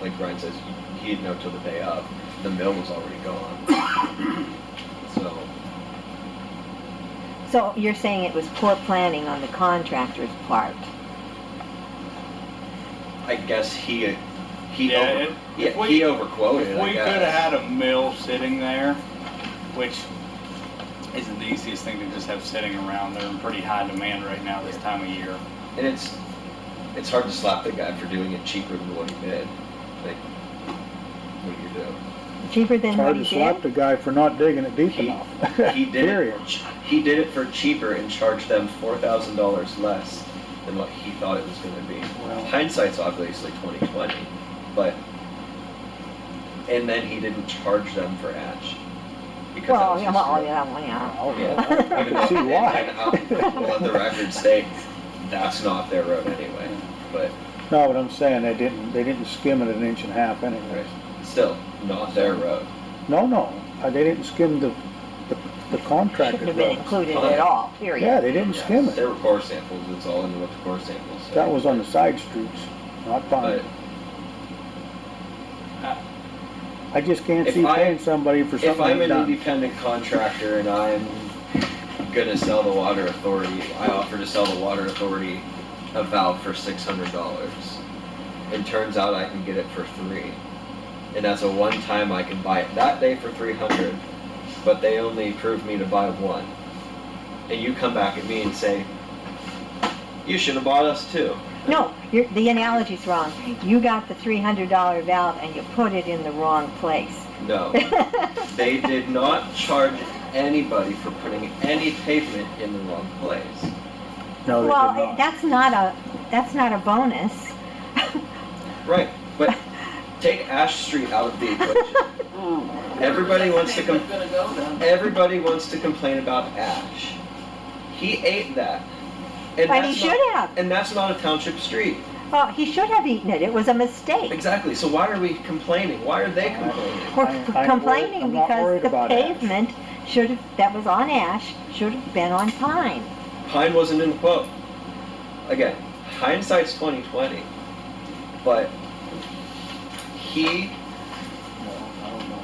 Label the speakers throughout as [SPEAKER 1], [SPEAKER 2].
[SPEAKER 1] like Brian says, he didn't know till the day of. The mill was already gone. so
[SPEAKER 2] So you're saying it was poor planning on the contractor's part?
[SPEAKER 1] I guess he he
[SPEAKER 3] Yeah,
[SPEAKER 1] over,
[SPEAKER 3] it-
[SPEAKER 1] yeah,
[SPEAKER 3] if we-
[SPEAKER 1] he overquoted.
[SPEAKER 3] If
[SPEAKER 1] I
[SPEAKER 3] we could
[SPEAKER 1] guess.
[SPEAKER 3] have had a mill sitting there, which isn't the easiest thing to just have sitting around, they're in pretty high demand right now this time of year.
[SPEAKER 1] and it's it's hard to slap the guy for doing it cheaper than what he did. Like, what do you do?
[SPEAKER 2] Cheaper than
[SPEAKER 4] It's
[SPEAKER 2] what
[SPEAKER 4] hard
[SPEAKER 2] he
[SPEAKER 4] to
[SPEAKER 2] did?
[SPEAKER 4] slap the guy for not digging it deep
[SPEAKER 1] He-
[SPEAKER 4] enough.
[SPEAKER 1] He did
[SPEAKER 4] Period.
[SPEAKER 1] it. He did it for cheaper and charged them four thousand dollars less than what he thought it was going to be.
[SPEAKER 3] Well-
[SPEAKER 1] Hindsight's obviously twenty twenty, but and then he didn't charge them for Atch because that
[SPEAKER 2] Well,
[SPEAKER 1] was
[SPEAKER 2] yeah,
[SPEAKER 1] his
[SPEAKER 2] well,
[SPEAKER 1] deal.
[SPEAKER 2] yeah, well, yeah.
[SPEAKER 4] Oh,
[SPEAKER 1] Yeah.
[SPEAKER 4] well, I
[SPEAKER 1] Even
[SPEAKER 4] can
[SPEAKER 1] though-
[SPEAKER 4] see
[SPEAKER 1] and-
[SPEAKER 4] why.
[SPEAKER 1] and I'll- I'll Let the record say that's not their road anyway, but
[SPEAKER 4] No, but I'm saying they didn't, they didn't skim it an inch and a half anyways.
[SPEAKER 1] still not their road.
[SPEAKER 4] No, no, uh, they didn't skim the, the- the
[SPEAKER 2] Shouldn't
[SPEAKER 4] contractor
[SPEAKER 2] have been
[SPEAKER 4] roads.
[SPEAKER 2] included at all, period.
[SPEAKER 4] Yeah, they didn't
[SPEAKER 1] Yeah,
[SPEAKER 4] skim it.
[SPEAKER 1] There were core samples, it's all in what the core samples say.
[SPEAKER 4] That was on the side streets, not
[SPEAKER 1] But
[SPEAKER 4] on, I just can't
[SPEAKER 1] If
[SPEAKER 4] see
[SPEAKER 1] I-
[SPEAKER 4] paying somebody for
[SPEAKER 1] if
[SPEAKER 4] something
[SPEAKER 1] I'm
[SPEAKER 4] they
[SPEAKER 1] an
[SPEAKER 4] done.
[SPEAKER 1] independent contractor and I'm gonna sell the water authority, I offer to sell the water authority a valve for six hundred dollars. It turns out I can get it for three. And that's a one time I can buy it that day for three hundred, but they only approved me to buy one. And you come back at me and say, you should have bought us two.
[SPEAKER 2] No, you're, the analogy's wrong. You got the three hundred dollar valve and you put it in the wrong place.
[SPEAKER 1] No. They did not charge anybody for putting any pavement in the wrong place.
[SPEAKER 4] No, they
[SPEAKER 2] Well,
[SPEAKER 4] did not.
[SPEAKER 2] that's not a, that's not a bonus.
[SPEAKER 1] Right, but take Ash Street out of the equation. Everybody wants to com-
[SPEAKER 5] Gonna go then.
[SPEAKER 1] everybody wants to complain about Ash. He ate that. And
[SPEAKER 2] But he
[SPEAKER 1] that's
[SPEAKER 2] should
[SPEAKER 1] not,
[SPEAKER 2] have.
[SPEAKER 1] and that's not a township street.
[SPEAKER 2] Well, he should have eaten it. It was a mistake.
[SPEAKER 1] Exactly. So why are we complaining? Why are they complaining?
[SPEAKER 2] We're
[SPEAKER 4] I- I'm
[SPEAKER 2] c-
[SPEAKER 4] worried-
[SPEAKER 2] complaining
[SPEAKER 4] I'm not
[SPEAKER 2] because
[SPEAKER 4] worried
[SPEAKER 2] the
[SPEAKER 4] about ash.
[SPEAKER 2] pavement should have, that was on Ash, should have been on Pine.
[SPEAKER 1] Pine wasn't in the quote. Again, hindsight's twenty twenty. But he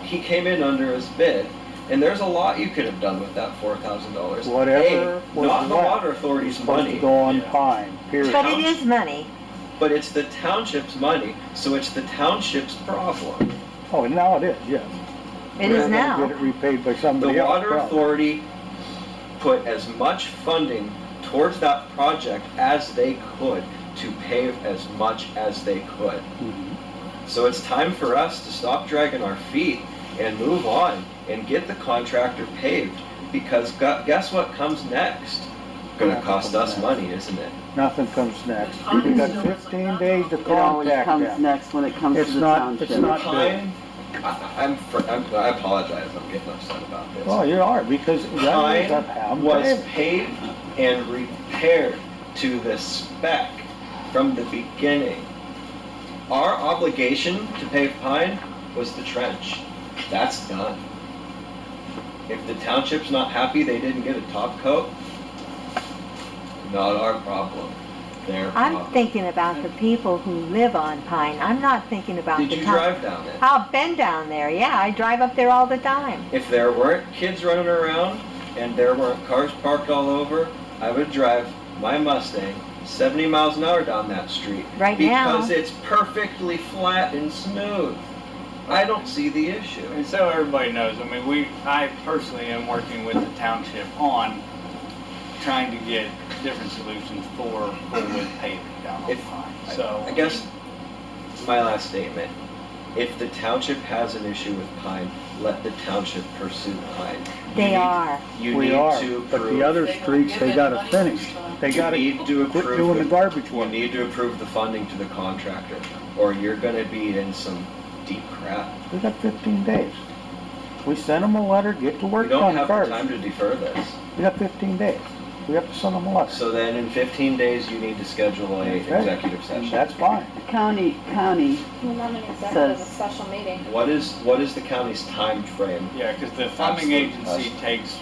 [SPEAKER 1] he came in under his bid, and there's a lot you could have done with that four thousand dollars.
[SPEAKER 4] Whatever was
[SPEAKER 1] Not the
[SPEAKER 4] left
[SPEAKER 1] water authority's
[SPEAKER 4] Supposed
[SPEAKER 1] money,
[SPEAKER 4] to go on
[SPEAKER 3] Yeah.
[SPEAKER 4] pine, period.
[SPEAKER 2] But it is money.
[SPEAKER 1] but it's the township's money, so it's the township's problem.
[SPEAKER 4] Oh, and now it is, yes.
[SPEAKER 2] It
[SPEAKER 1] We're
[SPEAKER 2] is
[SPEAKER 4] They're gonna Get
[SPEAKER 2] now.
[SPEAKER 4] it repaid by
[SPEAKER 1] The
[SPEAKER 4] somebody else.
[SPEAKER 1] water
[SPEAKER 4] probably.
[SPEAKER 1] authority put as much funding towards that project as they could to pave as much as they could.
[SPEAKER 4] Mhm.
[SPEAKER 1] So it's time for us to stop dragging our feet and move on and get the contractor paved because gu- guess what comes next? Gonna cost us money, isn't it?
[SPEAKER 4] Nothing comes next.
[SPEAKER 1] Oh,
[SPEAKER 4] We got fifteen days to
[SPEAKER 6] It always
[SPEAKER 4] contact
[SPEAKER 6] comes
[SPEAKER 4] them.
[SPEAKER 6] next when it comes to
[SPEAKER 4] It's
[SPEAKER 6] the
[SPEAKER 4] not, it's
[SPEAKER 6] township.
[SPEAKER 4] not good.
[SPEAKER 1] Pine, I, I'm, fr- I'm, I apologize, I'm getting upset about this.
[SPEAKER 4] Well, you are, because that was how
[SPEAKER 1] Pine was paved and repaired to the spec from the beginning. Our obligation to pave Pine was the trench. That's done. If the township's not happy they didn't get a top coat, not our problem, their
[SPEAKER 2] I'm
[SPEAKER 1] problem.
[SPEAKER 2] thinking about the people who live on Pine. I'm not thinking about
[SPEAKER 1] Did
[SPEAKER 2] the
[SPEAKER 1] you
[SPEAKER 2] town.
[SPEAKER 1] drive down it?
[SPEAKER 2] I've been down there, yeah. I drive up there all the time.
[SPEAKER 1] If there weren't kids running around and there weren't cars parked all over, I would drive my Mustang 70 miles an hour down that street.
[SPEAKER 2] Right now.
[SPEAKER 1] Because it's perfectly flat and smooth. I don't see the issue.
[SPEAKER 3] And so everybody knows, I mean, we, I personally am working with the township on trying to get different solutions for Bullwood paving down on
[SPEAKER 1] If-
[SPEAKER 3] Pine, so.
[SPEAKER 1] I guess my last statement, if the township has an issue with Pine, let the township pursue Pine. You
[SPEAKER 2] They
[SPEAKER 1] need-
[SPEAKER 2] are.
[SPEAKER 1] You
[SPEAKER 4] We
[SPEAKER 1] need
[SPEAKER 4] are,
[SPEAKER 1] to
[SPEAKER 4] but the
[SPEAKER 1] approve,
[SPEAKER 4] other
[SPEAKER 5] They don't
[SPEAKER 4] streets,
[SPEAKER 5] give
[SPEAKER 4] they
[SPEAKER 5] it
[SPEAKER 4] gotta
[SPEAKER 5] money
[SPEAKER 4] finish.
[SPEAKER 5] this time.
[SPEAKER 4] They
[SPEAKER 1] you
[SPEAKER 4] gotta
[SPEAKER 1] need to
[SPEAKER 4] quit
[SPEAKER 1] approve
[SPEAKER 4] doing the
[SPEAKER 1] the-
[SPEAKER 4] garbage
[SPEAKER 1] you
[SPEAKER 4] work.
[SPEAKER 1] need to approve the funding to the contractor or you're gonna be in some deep crap.
[SPEAKER 4] We got fifteen days. We sent them a letter, get to
[SPEAKER 1] We
[SPEAKER 4] work
[SPEAKER 1] don't
[SPEAKER 4] on
[SPEAKER 1] have the time
[SPEAKER 4] first.
[SPEAKER 1] to defer this.
[SPEAKER 4] We got fifteen days. We have to send them a letter.
[SPEAKER 1] So then in 15 days, you need to schedule a
[SPEAKER 4] That's right.
[SPEAKER 1] executive session.
[SPEAKER 4] Mm, That's fine.
[SPEAKER 6] County, county,
[SPEAKER 7] Well, not an executive, a
[SPEAKER 6] Says-
[SPEAKER 7] special meeting.
[SPEAKER 1] What is, what is the county's time frame?
[SPEAKER 3] Yeah, because the funding
[SPEAKER 1] Absolute
[SPEAKER 3] agency
[SPEAKER 1] cost.
[SPEAKER 3] takes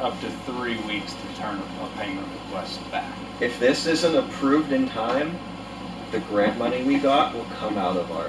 [SPEAKER 3] up to three weeks to turn a payment request back.
[SPEAKER 1] If this isn't approved in time, the grant money we got will come out of our